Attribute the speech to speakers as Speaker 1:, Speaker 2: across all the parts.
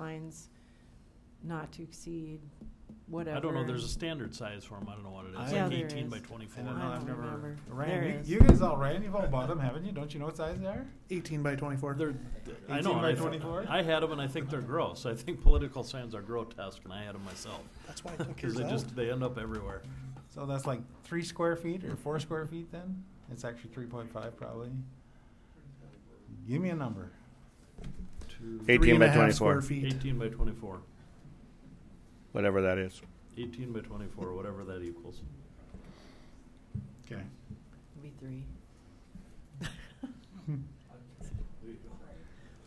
Speaker 1: signs not to exceed whatever.
Speaker 2: I don't know, there's a standard size for them, I don't know what it is,
Speaker 1: Yeah,
Speaker 2: like
Speaker 1: there
Speaker 2: eighteen
Speaker 1: is.
Speaker 2: by
Speaker 1: I
Speaker 2: twenty-four.
Speaker 3: And then
Speaker 1: don't
Speaker 3: I've never-
Speaker 1: remember. There
Speaker 3: Ryan,
Speaker 1: is.
Speaker 3: you, you guys all ran. You've all bought them, haven't you? Don't you know what size they are?
Speaker 4: 18 by 24.
Speaker 2: They're, I know,
Speaker 3: 18 by
Speaker 2: I-
Speaker 3: 24?
Speaker 2: I had them and I think they're gross, I think political signs are grotesque and I had them myself,
Speaker 4: That's why I took
Speaker 2: cause
Speaker 4: yours
Speaker 2: they
Speaker 4: out.
Speaker 2: just, they end up everywhere.
Speaker 3: So that's like three square feet or four square feet. Then it's actually three point five probably. Give me a number.
Speaker 2: Two-
Speaker 4: Three
Speaker 5: 18
Speaker 4: and a
Speaker 5: by
Speaker 4: half
Speaker 5: 24.
Speaker 4: Square feet.
Speaker 2: Eighteen by twenty-four,
Speaker 5: whatever that is.
Speaker 2: eighteen by twenty-four, whatever that equals.
Speaker 3: Okay.
Speaker 1: Be three.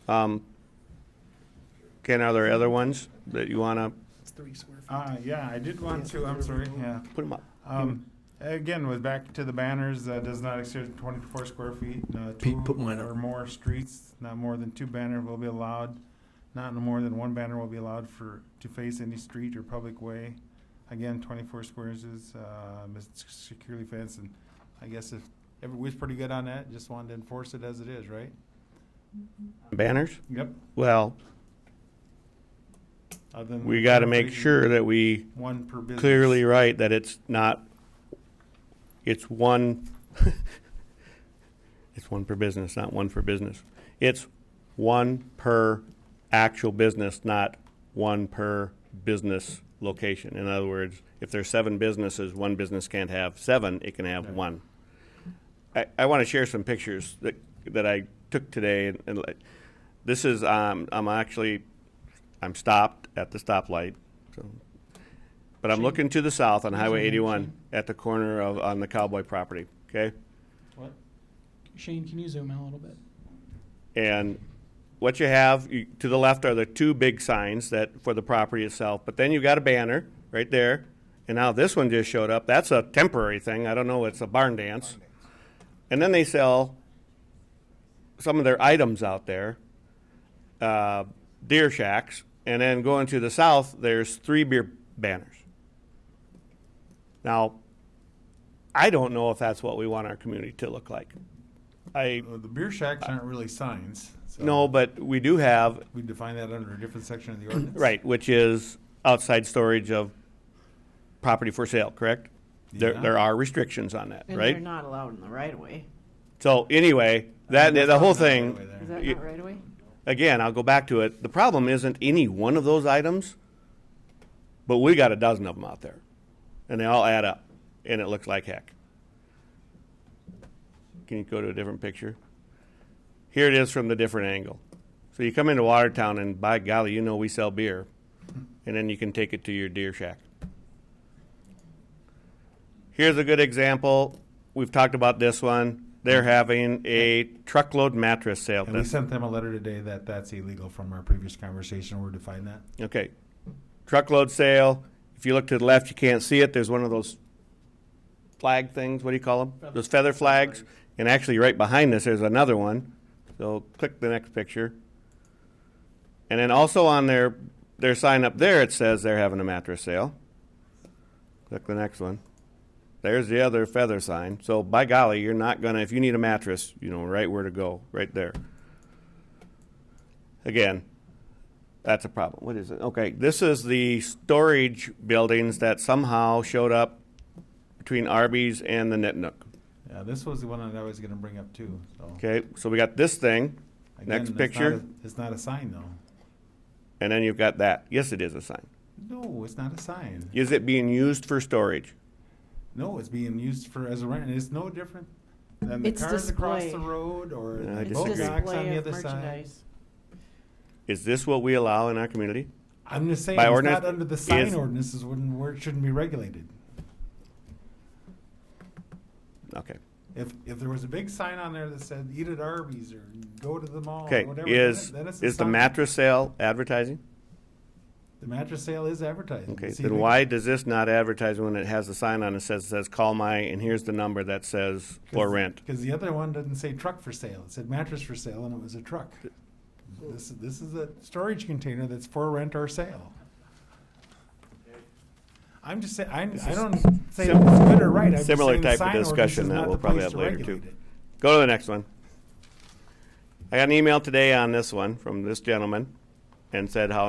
Speaker 5: Um, Ken, are there other ones that you want to
Speaker 4: It's three square feet.
Speaker 3: Uh, yeah, I did want to. I'm sorry. Yeah.
Speaker 5: put them up?
Speaker 3: Um, again, with back to the banners, uh, does not exceed twenty-four square feet, uh, two or more streets, not more than two banner will be allowed. Not more than one banner will be allowed for, to face any street or public way. Again, twenty-four squares is, uh, is securely fenced, and I guess if, everybody's pretty good on that, just wanted to enforce it as it is, right?
Speaker 5: Banners?
Speaker 3: Yep.
Speaker 5: Well, we got to make sure that we
Speaker 3: One per business.
Speaker 5: clearly write that it's not, it's one, it's one per business, not one for business. It's one per actual business, not one per business location. In other words, if there's seven businesses, one business can't have seven, it can have
Speaker 3: Right.
Speaker 5: one. I, I want to share some pictures that, that I took today. And, and like- this is, um, I'm actually, I'm stopped at the stoplight. So, but I'm looking to the south on Highway 81 at the corner of on the Cowboy property. Okay.
Speaker 3: What?
Speaker 6: Shane, can you zoom in a little bit?
Speaker 5: And what you have you, to the left are the two big signs that for the property itself, but then you got a banner right there. And now this one just showed up. That's a temporary thing. I don't know. It's a barn dance. And then they sell some of their items out there, uh, deer shacks. And then going to the south, there's three beer banners. Now, I don't know if that's what we want our community to look like. I
Speaker 3: Well, Uh, The beer shacks aren't really signs, so.
Speaker 5: Uh, no, but we do have,
Speaker 3: We define that under a different section of the ordinance.
Speaker 5: right, which is outside storage of property for sale, correct? There,
Speaker 3: Yeah.
Speaker 5: there are restrictions on that,
Speaker 1: And they're
Speaker 5: right?
Speaker 1: not allowed in the right of way.
Speaker 5: So anyway, that, the whole thing,
Speaker 1: Is that
Speaker 5: Yeah.
Speaker 1: not right of way?
Speaker 5: again, I'll go back to it. The problem isn't any one of those items, but we got a dozen of them out there. And they all add up, and it looks like heck. Can you go to a different picture? Here it is from the different angle. So you come into Watertown, and by golly, you know we sell beer, and then you can take it to your deer shack. Here's a good example. We've talked about this one. They're having a truckload mattress sale.
Speaker 3: And we
Speaker 5: this-
Speaker 3: sent them a letter today that that's illegal from our previous conversation. We're defining that.
Speaker 5: Okay. Truckload sale. If you look to the left, you can't see it. There's one of those flag things. What do you call them? Those feather flags. And actually, right behind this, there's another one. So click the next picture. And then also on their their sign up there, it says they're having a mattress sale. Click the next one. There's the other feather sign. So by golly, you're not gonna if you need a mattress, you know right where to go, right there. Again, that's a problem. What is it? Okay, this is the storage buildings that somehow showed up between Arby's and the Knit Nook.
Speaker 3: Yeah, this was the one that I was gonna bring up too, so.
Speaker 5: Okay, so we got this thing,
Speaker 3: Again, that's
Speaker 5: next
Speaker 3: not
Speaker 5: picture.
Speaker 3: a- It's not a sign though.
Speaker 5: and then you've got that. Yes, it is a sign.
Speaker 3: No, it's not a sign.
Speaker 5: Is it being used for storage?
Speaker 3: No, it's being used for, as a rent, and it's no different than the
Speaker 1: It's
Speaker 3: cars across the
Speaker 1: display.
Speaker 3: road or
Speaker 5: Yeah, I
Speaker 3: the
Speaker 1: It's
Speaker 3: boat
Speaker 5: disagree.
Speaker 3: docks on
Speaker 1: display
Speaker 3: the
Speaker 1: of
Speaker 3: other side.
Speaker 1: merchandise.
Speaker 5: Is this what we allow in our community?
Speaker 3: I'm just saying,
Speaker 5: By
Speaker 3: it's
Speaker 5: ordinance,
Speaker 3: not under the sign
Speaker 5: is-
Speaker 3: ordinances, wouldn't, where it shouldn't be regulated.
Speaker 5: Okay.
Speaker 3: If, if there was a big sign on there that said, eat at Arby's or go to the mall or
Speaker 5: Okay,
Speaker 3: Oh, whatever. then
Speaker 5: is,
Speaker 3: it- then it's a
Speaker 5: is the
Speaker 3: sign.
Speaker 5: mattress sale advertising?
Speaker 3: The mattress sale is advertising.
Speaker 5: Okay,
Speaker 3: It's
Speaker 5: then
Speaker 3: illegal.
Speaker 5: why does this not advertise when it has a sign on it says, says call my, and here's the number that says for rent?
Speaker 3: Because the other one didn't say truck for sale. It said mattress for sale, and it was a truck. This, this is a storage container that's for rent or sale. I'm just saying, I'm, I don't say
Speaker 5: sim-
Speaker 3: it's good or right. I'm just
Speaker 5: similar
Speaker 3: saying the
Speaker 5: type of
Speaker 3: sign ordinance
Speaker 5: discussion
Speaker 3: is
Speaker 5: that
Speaker 3: not
Speaker 5: we'll
Speaker 3: the
Speaker 5: probably
Speaker 3: place
Speaker 5: have
Speaker 3: to
Speaker 5: later,
Speaker 3: regulate
Speaker 5: too.
Speaker 3: it.
Speaker 5: Go to the next one. I got an email today on this one from this gentleman and said how